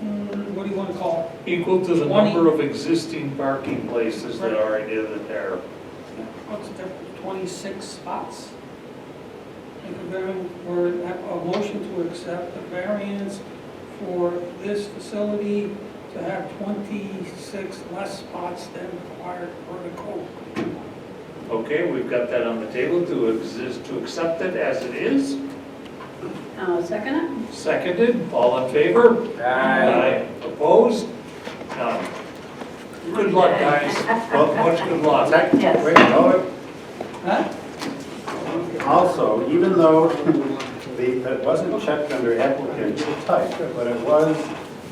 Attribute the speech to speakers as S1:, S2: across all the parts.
S1: mm, what do you want to call it?
S2: Equal to the
S1: Twenty.
S2: number of existing parking places that are in that there.
S1: What's the difference, 26 spots? Make a vari- or have a motion to accept the variance for this facility to have 26 less spots than required per the code.
S2: Okay, we've got that on the table to exist, to accept it as it is.
S3: I'll second it.
S2: Seconded, all in favor?
S4: Uh,
S2: Aye. Opposed? None. Good luck, guys. Well, Much good luck.
S4: Second,
S3: Yes.
S4: wait, no,
S1: Huh?
S4: also, even though the, it wasn't checked under applicant type, but it was,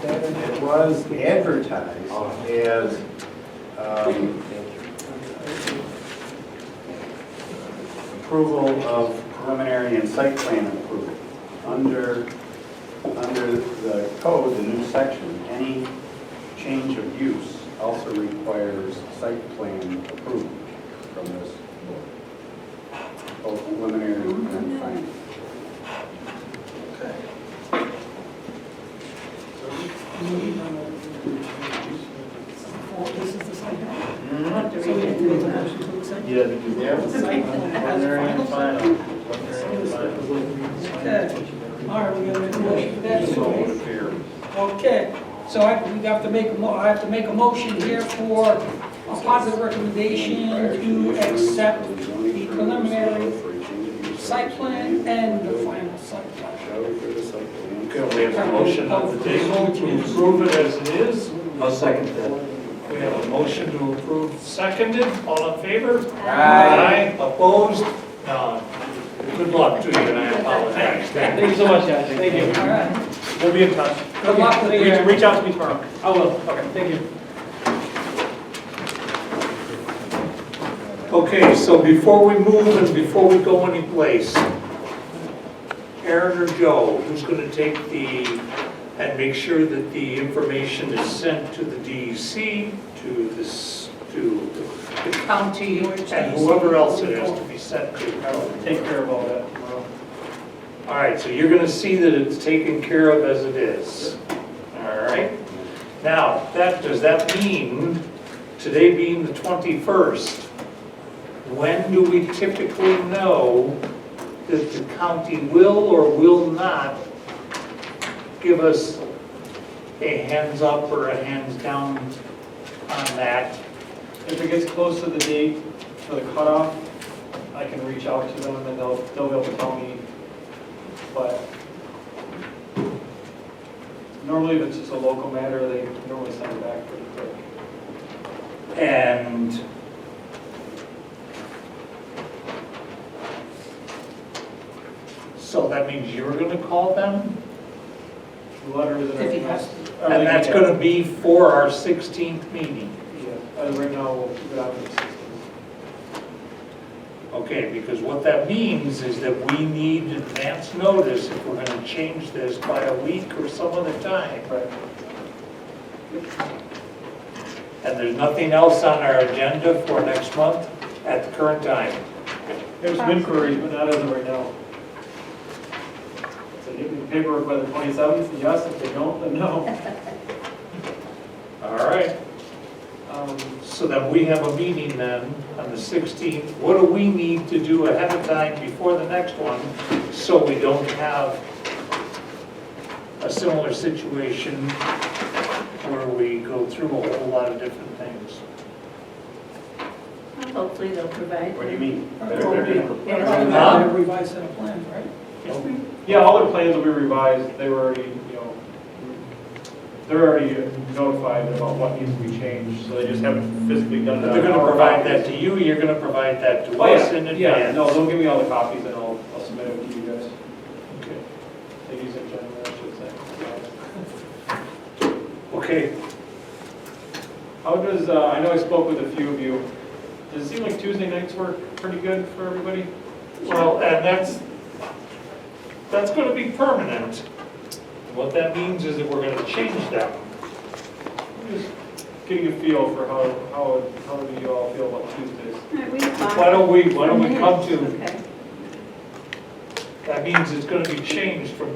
S4: it was advertised as, um, approval of preliminary and site plan approval. Under, under the code, the new section, any change of use also requires site plan approval from this board. Both preliminary and final.
S1: For- This is the site plan?
S3: I'll have to
S1: So we
S3: read
S1: have to make a
S3: it.
S1: motion to accept?
S2: You had to do
S4: Yeah.
S1: Site plan as a final? Okay, all right, we're gonna make a motion for that.
S2: So it would appear.
S1: Okay, so I, we have to make a mo, I have to make a motion here for a positive recommendation to accept the preliminary site plan and the final site plan.
S4: Show for the site plan.
S2: Okay, we have a motion on the table to approve it as it is. I'll second that. We have a motion to approve seconded, all in favor? Aye. Opposed? None. Good luck to you, and I apologize.
S5: Thank you so much, guys. Thank
S1: All
S5: you.
S1: right,
S5: We'll be in touch.
S1: Good luck with your-
S5: Reach- Reach out to me tomorrow. I will. Okay, thank you.
S2: Okay, so before we move and before we go anyplace, Aaron or Joe, who's gonna take the, and make sure that the information is sent to the DEC, to this, to the county, and whoever else it has to be sent to.
S5: Take care of all that tomorrow.
S2: All right, so you're gonna see that it's taken care of as it is. All right? Now, that, does that mean, today being the 21st, when do we typically know that the county will or will not give us a hands up or a hands down on that?
S5: If it gets close to the date for the cutoff, I can reach out to them and they'll, they'll be able to tell me. But normally if it's just a local matter, they normally send it back pretty quick.
S2: And so that means you're gonna call them?
S5: The Letter is. in our
S1: If he
S5: email.
S1: has to.
S2: And that's gonna be for our 16th meeting?
S5: Yeah, as of right now, we'll keep it out of the system.
S2: Okay, because what that means is that we need advance notice if we're gonna change this by a week or some other time.
S5: Right.
S2: And there's nothing else on our agenda for next month at the current time.
S5: There's some inquiries, but not as of right now. So you can paperwork by the 27th, yes, if they don't, then no.
S2: All right,
S5: Um,
S2: so then we have a meeting then on the 16th. What do we need to do ahead of time before the next one so we don't have a similar situation where we go through a whole lot of different things?
S3: Hopefully they'll provide.
S4: What do you mean?
S1: Or-
S4: They're- they're gonna-
S1: We're probably gonna revise set of plans, right?
S5: Yeah, all their plans will be revised, they were already, you know, they're already notified about what needs to be changed, so they just haven't physically done that.
S2: They're gonna provide that to you, you're gonna provide that to
S5: Oh,
S2: us in
S5: yeah, yeah,
S2: advance.
S5: no, they'll give me all the copies and I'll, I'll submit them to you guys.
S2: Okay.
S5: They use it generally, I should say.
S2: Okay,
S5: How does, uh, I know I spoke with a few of you, does it seem like Tuesday nights work pretty good for everybody?
S2: well, and that's, that's gonna be permanent. What that means is that we're gonna change that.
S5: Just getting a feel for how, how, how do you all feel about Tuesdays?
S3: All right, we have five.
S2: Why don't we, why don't we come to,
S3: Okay.
S2: that means it's gonna be changed from